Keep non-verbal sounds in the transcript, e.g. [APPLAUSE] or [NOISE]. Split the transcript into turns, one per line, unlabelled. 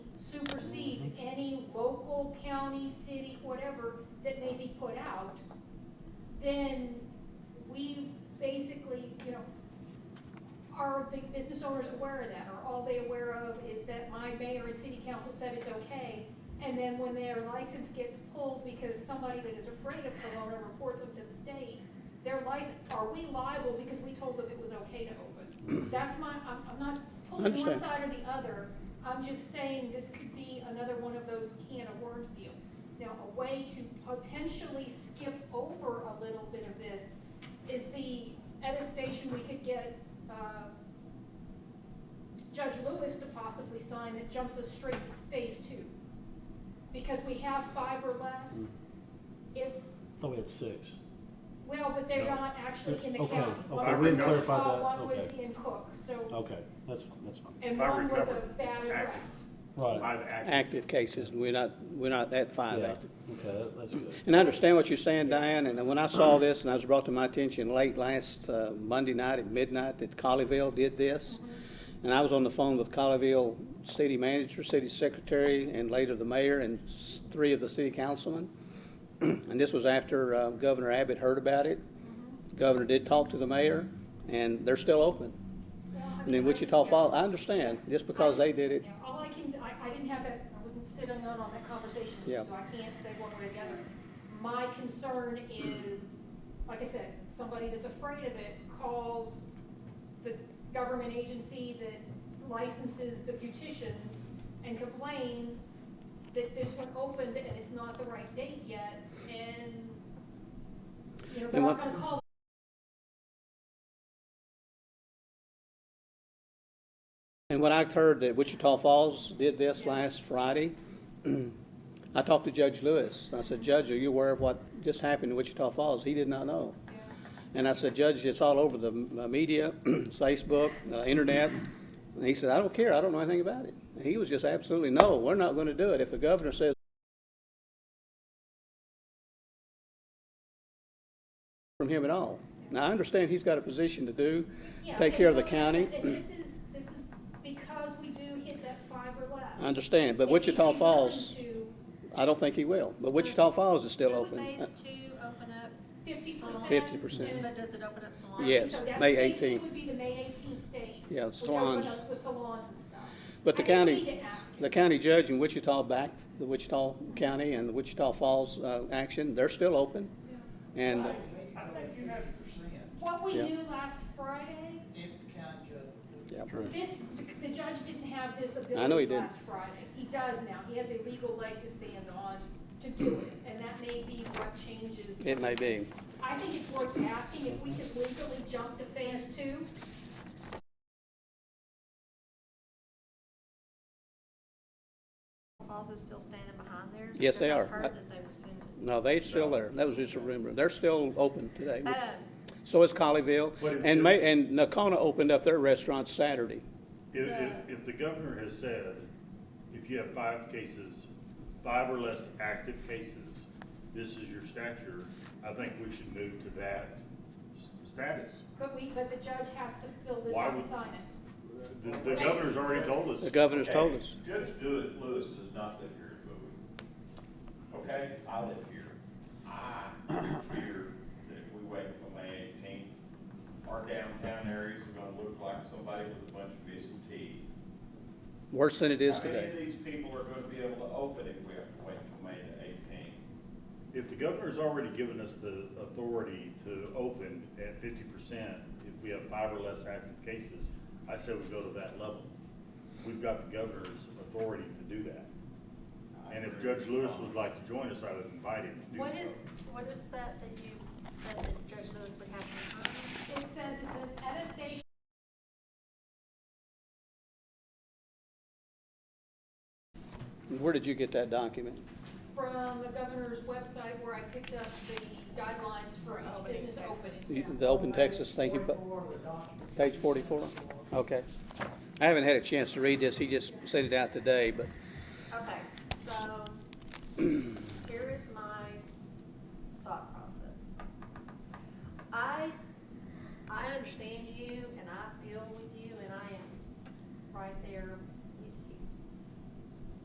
supersedes any local, county, city, whatever that may be put out, then we basically, you know, are the business owners aware of that? Are all they aware of is that my mayor and city council said it's okay? And then when their license gets pulled because somebody that is afraid of Corona reports them to the state, their license, are we liable because we told them it was okay to open? That's my, I'm, I'm not pulling one
Understand.
side or the other. I'm just saying this could be another one of those can of worms deal. Now, a way to potentially skip over a little bit of this is the, at a station, we could get, uh, Judge Lewis to possibly sign that jumps us straight to phase two. Because we have five or
Mm.
less, if,
thought Oh, we had six.
well, but they're
No.
not actually in the
Okay,
county.
okay.
One
I
was in
wouldn't
clarify
Wichita,
that,
One was
okay.
in Cook, so,
Okay, that's, that's fine.
and
If I
one was
recover,
a
it's
bad
active.
arrest.
Right.
Five active.
active cases, and we're not, we're not at five
Yeah,
active.
okay, that- that's good.
And I understand what you're saying, Diane, and when I saw this, and I was brought to my attention late last uh, Monday night at midnight that Colleyville did this, and I was on the phone with Colleyville city manager, city secretary, and later the mayor, and s- three of the city councilmen. [CLEARS THROAT] And this was after uh, Governor Abbott heard about it. Governor did talk to the mayor, and they're still open.
Well, I
And
mean,
in
I
Wichita
just-
Falls, I understand, just because they did it,
Yeah, all I can, I, I didn't have that, I wasn't sitting in on that conversation,
Yeah.
so I can't say one way or the other. My concern is, like I said, somebody that's afraid of it calls the government agency that licenses the beauticians and complains that this one opened and it's not the right date yet, and, you know, they're
And
not
what-
gonna call
And when I heard that Wichita Falls did this last Friday, [CLEARS THROAT] I talked to Judge Lewis. I said, Judge, are you aware of what just happened in Wichita Falls? He did not know. And I said, Judge, it's all over the uh, media, [CLEARS THROAT] Facebook, uh, internet. And he said, I don't care, I don't know anything about it. And he was just absolutely, no, we're not going to do it. If the governor says from him at all. Now, I understand he's got a position to do,
Yeah,
take
and
care of the
like I
county.
said, And this is, this is because we do hit that five or less.
I understand, but
If we
Wichita
do nothing
Falls,
to
I don't think he will, but Wichita Falls is still
Does
open.
phase two open up,
Fifty percent.
50%.
but does it open up salons?
Yes. May 18th.
Would be the May eighteenth date.
Yeah,
which
salons.
opened up The salons and stuff.
But the
I think we
county-
need to ask
The
him.
county judge in Wichita backed the Wichita County and the Wichita Falls uh, action, they're still open. And,
I think you have percent
What we
Yeah.
knew last Friday,
if the county judge.
yeah,
this, the- the judge didn't have this
I know
ability
he didn't.
last Friday. He does now. He has a legal leg to stand on to do it, and that may be what changes.
it may be.
I think it's worth asking if we could legally jump to phase two.
Falls is still standing behind there?
Yes, they
Because
are.
I've heard that they rescinded.
No, they're still there, that was just a rumor, they're still open today. which-
Oh.
So is Colleyville,
What if-
and May, and Nakona opened up their restaurant Saturday.
If,
Yeah.
if, if the governor has said, if you have five cases, five or less active cases, this is your stature, I think we should move to that s- status.
But we, but the judge has to fill this
Why
out and
would-
sign it.
The, the governor's already told us.
The governor's told us.
Judge Dewitt Lewis does not live here in Bowie. Okay, I live here. I fear that if we wait until May eighteenth, our downtown areas are gonna look like somebody with a bunch of missing teeth.
Worse than it is
How many of
today.
these people are gonna be able to open if we have to wait until May the eighteenth?
If the governor's already given us the authority to open at fifty percent, if we have five or less active cases, I say we go to that level. We've got the governor's authority to do that. And if Judge Lewis would like to join us, I would invite him to do so.
What is, what is that that you said that Judge Lewis would have to sign?
It says it's an attestation
Where did you get that document?
from the governor's website where I picked up the guidelines for each business
You-
opening.
The Open Texas, thank you, but, page forty-four? Okay. I haven't had a chance to read this, he just sent it out today, but
Okay, so [CLEARS THROAT] here is my thought process. I, I understand you and I feel with you and I am right there